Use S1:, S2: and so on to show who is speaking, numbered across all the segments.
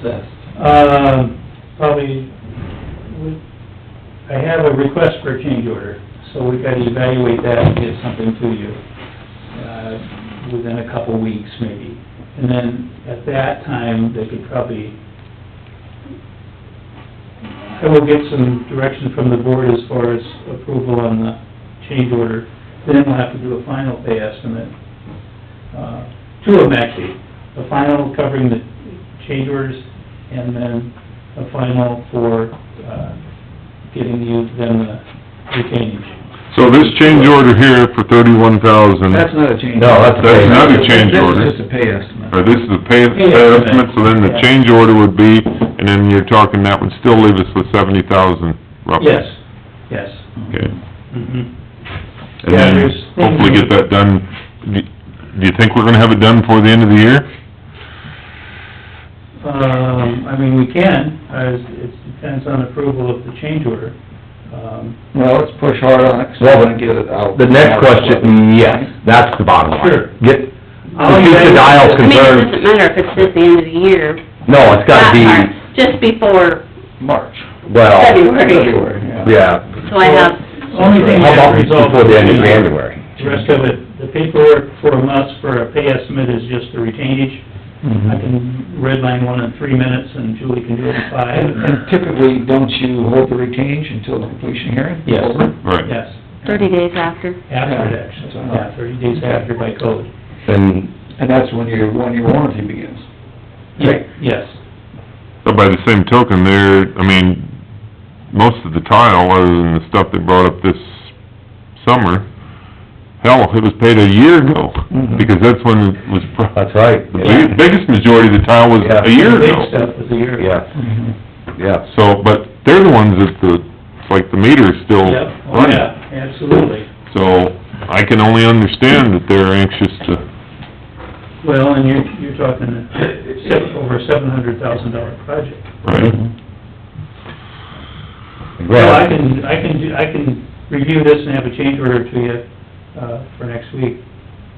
S1: assessed?
S2: Um, probably, we- I have a request for a change order, so we gotta evaluate that and get something to you, uh, within a couple weeks maybe. And then, at that time, they could probably, I will get some direction from the board as far as approval on the change order. Then we'll have to do a final pay estimate, uh, two of them actually, a final covering the change orders and then a final for, uh, getting you them the retainage.
S3: So this change order here for thirty-one thousand,
S1: That's not a change.
S4: No, that's a-
S3: That's not a change order.
S1: That's just a pay estimate.
S3: or this is the pay pay estimate, so then the change order would be, and then you're talking that would still leave us with seventy thousand roughly.
S2: Yes, yes.
S3: Okay,
S2: Mhm.
S3: and
S2: Yeah,
S3: then
S2: there's-
S3: hopefully get that done, do do you think we're gonna have it done before the end of the year?
S2: Um, I mean, we can, as it depends on approval of the change order. Um,
S1: Well, let's push hard on it, 'cause I wanna get it out.
S4: The next question, yes, that's the bottom line.
S2: Sure.
S4: Get, reduce the dial
S5: I mean, it
S4: concern,
S5: doesn't matter if it's at the end of the year.
S4: no, it's gotta be,
S5: That part, Just before
S1: March.
S4: well,
S5: February,
S1: February, yeah.
S4: yeah,
S5: so I have,
S2: Only thing
S4: how
S2: that
S4: about
S2: resolves...
S4: before the end of January?
S2: The rest of it, the paperwork from us for a pay estimate is just the retainage. I can redline one in three minutes and Julie can do it in five.
S6: Mm-hmm.
S1: And and typically, don't you hold the retainage until the completion hearing?
S2: Yes.
S1: Over?
S3: Right.
S2: Yes,
S5: thirty days after.
S2: after it actually, yeah, thirty days after by code.
S4: And,
S1: And that's when your one-year warranty begins.
S2: Ye- Yes,
S3: But by the same token, there, I mean, most of the tile, other than the stuff they brought up this summer, hell, it was paid a year ago,
S2: Mm-hmm.
S1: Mhm.
S3: because that's when it was, pro-
S4: that's right,
S3: the big- biggest majority of the tile was a
S2: the Mm-hmm.
S3: year
S2: big
S3: ago.
S2: stuff was a year ago.
S4: yeah, yeah.
S3: So, but they're the ones that the, it's like the meter's still
S2: Yep, oh yeah,
S3: running.
S2: absolutely.
S3: So, I can only understand that they're anxious to,
S2: Well, and you're, you're talking a se- over a seven hundred thousand dollar project.
S3: right?
S2: Mm-hmm. Well, I can, I can, do- I can review this and have a change order to you, uh, for next week.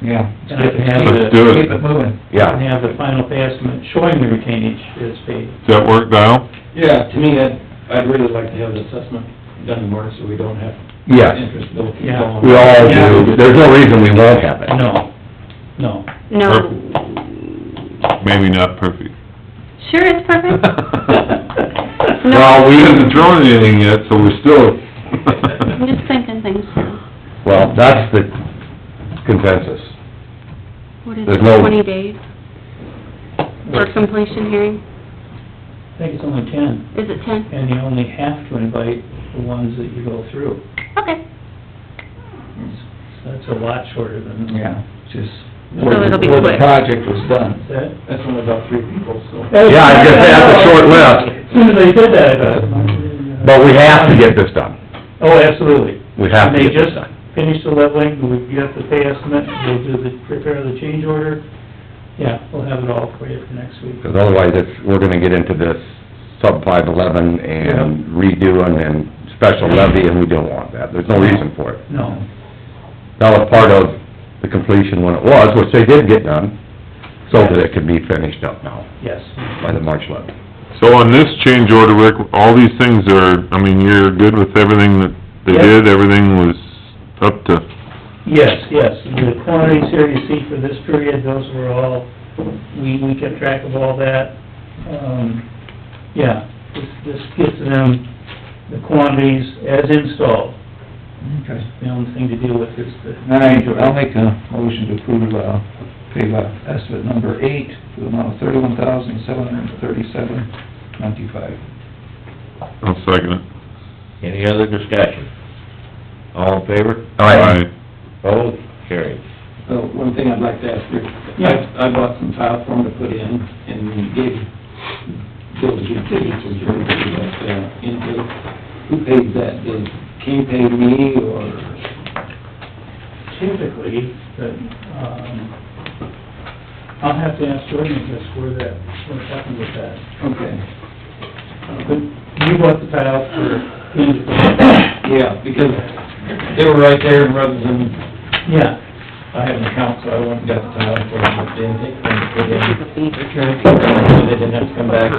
S1: Yeah.
S2: And I can have the,
S3: Let's do it.
S1: Keep it moving.
S2: and
S4: Yeah,
S2: have the final pay estimate showing the retainage is paid.
S3: Does that work, Dial?
S6: Yeah, to me, I'd, I'd really like to have an assessment done tomorrow, so we don't have
S4: yes,
S6: interest bill keep
S2: Yeah.
S6: going.
S4: we all do, there's no reason we won't have it.
S2: No, no.
S5: No,
S3: Maybe not perfect.
S5: sure it's perfect. No.
S3: Well, we haven't drawn anything yet, so we're still...
S5: I'm just thinking things through.
S4: Well, that's the consensus,
S5: What is
S4: There's
S5: it,
S4: no-
S5: twenty days for completion hearing?
S2: I think it's only ten,
S5: Is it ten?
S2: and you only have to invite the ones that you go through.
S5: Okay,
S2: So That's a lot shorter than...
S1: Yeah, just.
S5: So it'll be
S1: Where the
S5: quick.
S1: project was done.
S2: That,
S6: That's only about three people, so.
S4: Yeah, I was gonna say, that's a short list.
S2: As soon as I said that, I thought...
S4: but we have to get this done.
S2: Oh, absolutely.
S4: We have
S2: And
S4: to
S2: they
S4: get
S2: just
S4: this done.
S2: finish the leveling, we get the pay estimate, we'll do the, prepare the change order. Yeah, we'll have it all for you for next week.
S4: Because otherwise, it's, we're gonna get into this sub five eleven and redoing and special levy, and we don't want that. There's no reason for it.
S2: No,
S4: That was part of the completion when it was, which they did get done, so that it could be finished up now
S2: yes.
S4: by the March levy.
S3: So on this change order, Rick, all these things are, I mean, you're good with everything that they
S2: Yep.
S3: did, everything was up to,
S2: Yes, yes, the quantities here you see for this period, those were all, we, we kept track of all that. Um, yeah, this, this gives them the quantities as installed.
S1: Okay.
S2: The only thing to deal with is the
S1: All right,
S2: change order.
S1: I'll make a motion to approve, uh, pay by estimate number eight for the amount of thirty-one thousand, seven hundred and thirty-seven, twenty-five.
S3: I'll second it.
S7: Any other discussion? All in favor?
S4: Aye.
S7: Opposed? Carried.
S6: Uh, one thing I'd like to ask Rick, I, I bought some tile for him to put in, and gave Bill the utilities, which were that, uh, intake. Who paid that? Did King pay me, or?
S2: typically, but, um, I'll have to ask Jordan just where that, what happened with that.
S6: Okay.
S2: But you bought the tile for Kingsborough.
S6: Yeah, because they were right there, and rather than
S2: Yeah,
S6: I have an account, so I went and got the tile for them, but they didn't take them, they
S5: This
S6: didn't,
S5: is a feeder.
S6: they didn't have to come back